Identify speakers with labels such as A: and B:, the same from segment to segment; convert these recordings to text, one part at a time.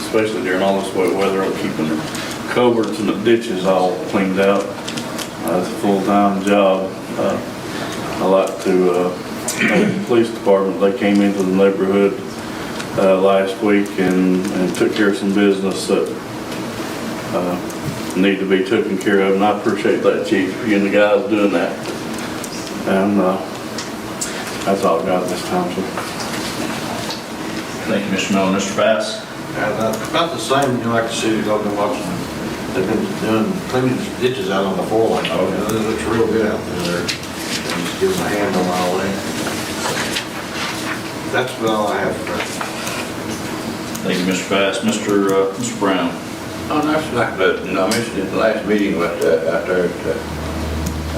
A: especially during all this wet weather, on keeping the culverts and the ditches all cleaned out. Uh, It's a full-time job. Uh, I like to, uh, thank the police department, they came into the neighborhood uh, last week and, and took care of some business that uh, need to be taken care of, and I appreciate that, chief, you and the guys doing that. And uh, that's all I got this time, sir.
B: Thank you, Mr. Miller. Mr. Bass?
C: Yeah, About Uh, about the same, you know, like the city of Logan, Washington, they've been doing, cleaning ditches out on the four line.
B: Oh, yeah.
C: It looks real good out there. And Just give them a hand on all that. That's about all I have for
B: Thank you, Mr. Bass. Mr. uh, Mr. Brown?
D: Oh, no, it's like, the- no, I mentioned it in the last meeting with, uh, out there at, the,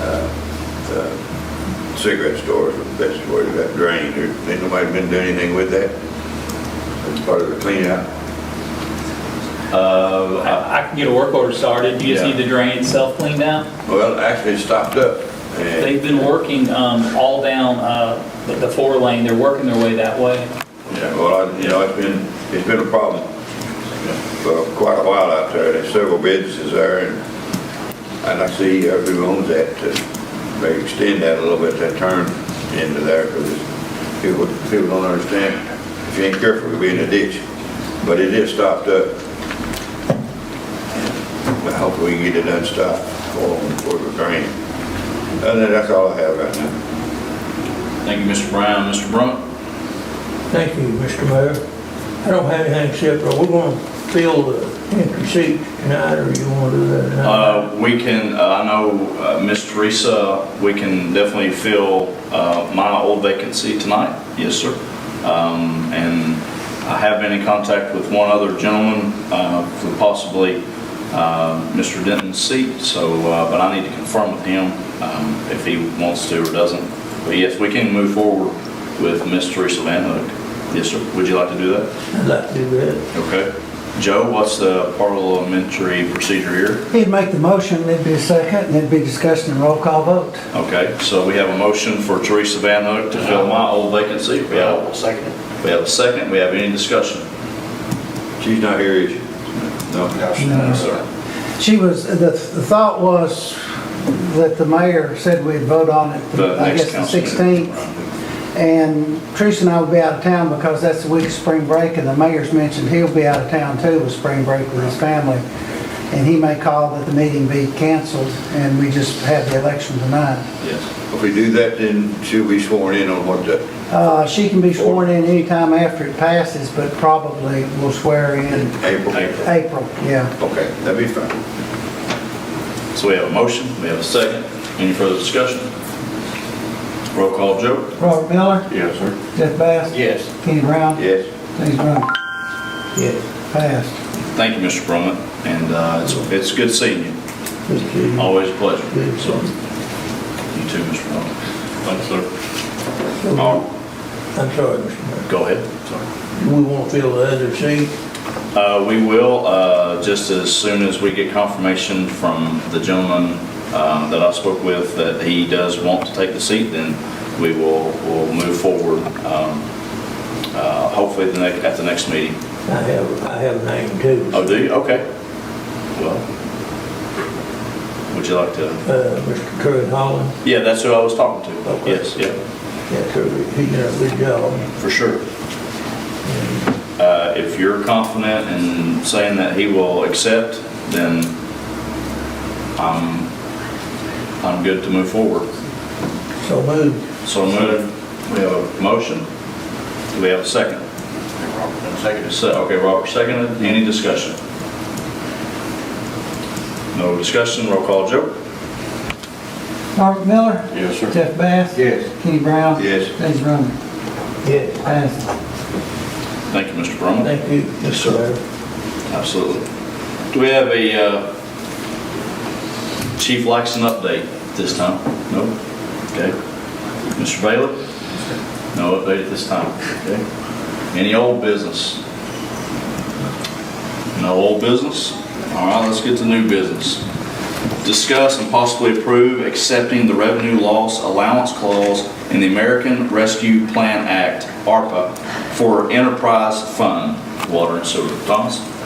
D: uh, the cigarette stores, that's where you got drained, There- ain't nobody been doing anything with that? That's part of the cleanup.
B: Uh,
E: I I can get a work order started, you just
B: Yeah.
E: need the drain itself cleaned out.
D: Well, actually, it stopped up, and
E: They've been working um, all down uh, the- the four lane, they're working their way that way.
D: Yeah, well, I- you know, it's been, it's been a problem for quite a while out there. There's several businesses there, and, and I see who owns that, to maybe extend that a little bit, that turn into there, because people, people don't understand. If you ain't careful, you'll be in a ditch. But it is stopped up. I hope we can get it unstopped for, for the drain. And then that's all I have right now.
B: Thank you, Mr. Brown. Mr. Brunt?
F: Thank you, Mr. Mayor. I don't have anything except, are we going to fill the empty seats tonight, or you want to do that tonight?
B: Uh, We can, uh, I know uh, Ms. Teresa, we can definitely fill uh, my old vacancy tonight. Yes, sir. Um, And I have been in contact with one other gentleman uh, for possibly uh, Mr. Denton's seat, so, uh, but I need to confirm with him um, if he wants to or doesn't. But yes, we can move forward with Ms. Teresa Van Hook. Yes, sir. Would you like to do that?
F: I'd like to do that.
B: Okay. Joe, what's the parliamentary procedure here?
G: He'd make the motion, there'd be a second, and there'd be discussion and roll call vote.
B: Okay, so we have a motion for Teresa Van Hook to fill my old vacancy. We have,
C: second.
B: we have a second, we have any discussion?
D: She's not here, is she? No.
B: No, sir.
G: She was, the the thought was that the mayor said we'd vote on it,
B: The
G: I
B: next
G: guess, the
B: council meeting.
G: 16th. And Teresa and I will be out of town because that's the week of spring break, and the mayor's mentioned he'll be out of town too with spring break with his family. And he may call that the meeting be canceled, and we just have the election tonight.
B: Yes.
D: If we do that, then she'll be sworn in on what the,
G: Uh, She can be sworn in anytime after it passes, but probably will swear in
D: April.
B: April.
G: April, yeah.
D: Okay, that'd be fine.
B: So we have a motion, we have a second, any further discussion? Roll call, Joe?
G: Robert Miller,
A: Yes, sir.
G: Jeff Bass.
C: Yes.
G: Kenny Brown?
D: Yes.
G: James Brown? Yes. Passed.
B: Thank you, Mr. Brumman, and uh, it's, it's good seeing you,
F: Just kidding.
B: always a pleasure. So, you too, Mr. Brumman. Thanks, sir. Oh,
F: I'm sorry, Mr. Mayor.
B: Go ahead. Sorry.
F: Do we want to fill the other seat?
B: Uh, We will, uh, just as soon as we get confirmation from the gentleman um, that I spoke with that he does want to take the seat, then we will, will move forward, um, uh, hopefully the next, at the next meeting.
F: I have, I have a name too.
B: Oh, do you? Okay. Well, would you like to?
F: Uh, Mr. Curry Holland,
B: Yeah, that's who I was talking to.
F: Okay.
B: Yes, yeah,
F: yeah, Curry, he done a good job.
B: for sure. Uh, If you're confident in saying that he will accept, then I'm, I'm good to move forward.
F: So moved.
B: So moved, we have a motion. Do we have a second?
C: Second.
B: Se- Okay, Robert seconded. Any discussion? No discussion, roll call, Joe?
G: Robert Miller?
A: Yes, sir.
G: Jeff Bass?
C: Yes.
G: Kenny Brown?
D: Yes.
G: James Brown?
F: Yes,
G: Passed.
B: Thank you, Mr. Brumman.
F: thank you,
B: Yes,
F: Mr.
B: sir.
F: Mayor.
B: Absolutely. Do we have a uh, Chief Laxton update this time? No? Okay. Mr. Bailey? No update at this time. Okay. Any old business? No old business? All right, let's get to new business. Discuss and possibly approve accepting the revenue loss allowance clause in the American Rescue Plan Act, ARPA, for enterprise fund, water and sewer. Thomas?